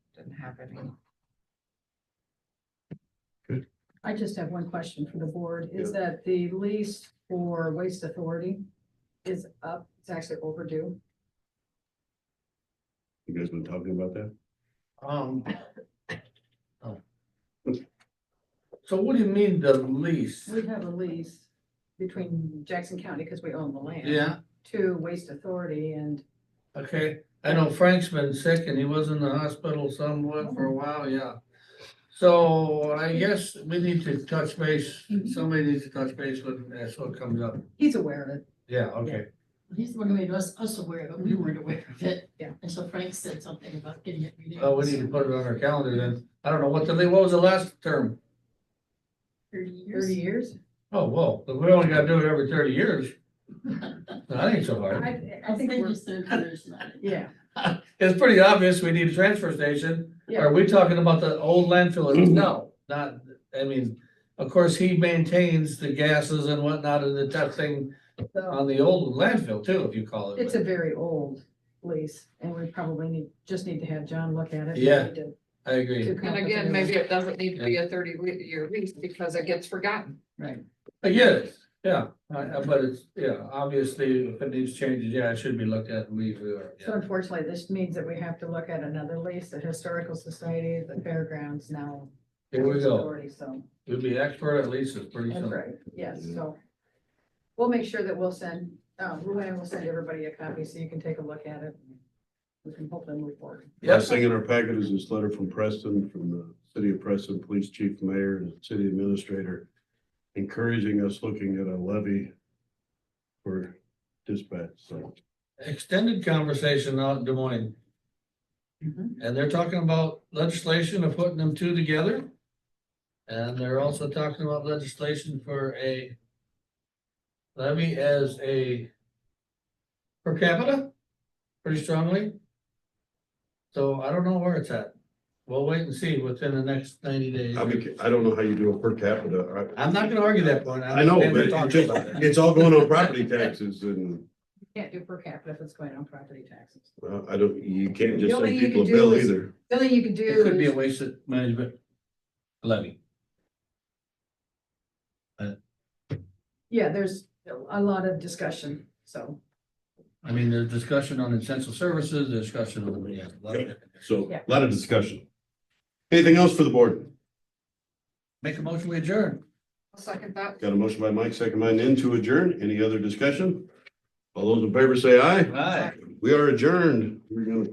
happening. I just have one question for the board, is that the lease for Waste Authority is up, it's actually overdue. You guys been talking about that? Um. oh. So what do you mean the lease? We have a lease between Jackson County, because we own the land. Yeah, To Waste Authority and okay, I know Frank's been sick and he was in the hospital somewhat for a while, yeah. So I guess we need to touch base, somebody needs to touch base with, that's what comes up, he's aware of it. yeah, okay. He's the one who made us, us aware of it, we weren't aware of Mm-hmm. it. Yeah. And so Frank said something about getting it renewed. Oh, we need to put it on our calendar then, I don't know, what the, what was the last term? Thirty years. Thirty years? Oh, whoa, but we only gotta do it every thirty years, that ain't so hard. I, I I think think you we're, said there's not. yeah, It's pretty obvious we need a transfer station. Yeah. Are we talking about the old landfill? No, not, I mean, of course, he maintains the gases and whatnot and the testing on the old landfill too, if you call it. it's a very old lease and we probably need, just need to have John look at it. We Yeah. need to- I agree. to And complicate it. again, maybe it doesn't need to be a thirty le- year lease because it gets forgotten. Right, I get it, Uh, yeah, I- I- but it's, yeah, obviously, if it needs changes, yeah, it should be looked at and we, we are. so yeah. unfortunately, this means that we have to look at another lease, the Historical Society, the fairgrounds now. Here we Waste go. Authority, So. We'll be expert at leases pretty That's soon. right, yes, Mm-hmm. Yeah. so. We'll make sure that we'll send, uh, Luann will send everybody a copy so you can take a look at it. We can hopefully move forward. Yes, Last thing in our packet is this letter from Preston, from the city of Preston, police chief, mayor, and city administrator, encouraging us looking at a levy for dispatch, so. extended conversation out in Des Moines. And they're talking about legislation of putting them two together. And they're also talking about legislation for a levy as a per capita, pretty strongly. So I don't know where it's at. We'll wait and see within the next ninety days. I mean, I don't know how you do a per capita. I'm not gonna argue that point. I know, but understand they're it talking about just- it. it's all going on property taxes and You Can't do per capita if it's going on property taxes. uh, I don't, you can't just The only send thing you people a can do bill is- either. The only thing you can do It could be a is, wasted management levy. yeah, there's a lot of discussion, so. I mean, there's discussion on essential services, there's discussion on, yeah, a lot of different- So Yeah. a lot of discussion. Anything else for the board? Make a motion, we adjourn. Second thought. Got a motion by Mike, second by Nan to adjourn. Any other discussion? All those in favor say aye. Aye. We are adjourned. We're gonna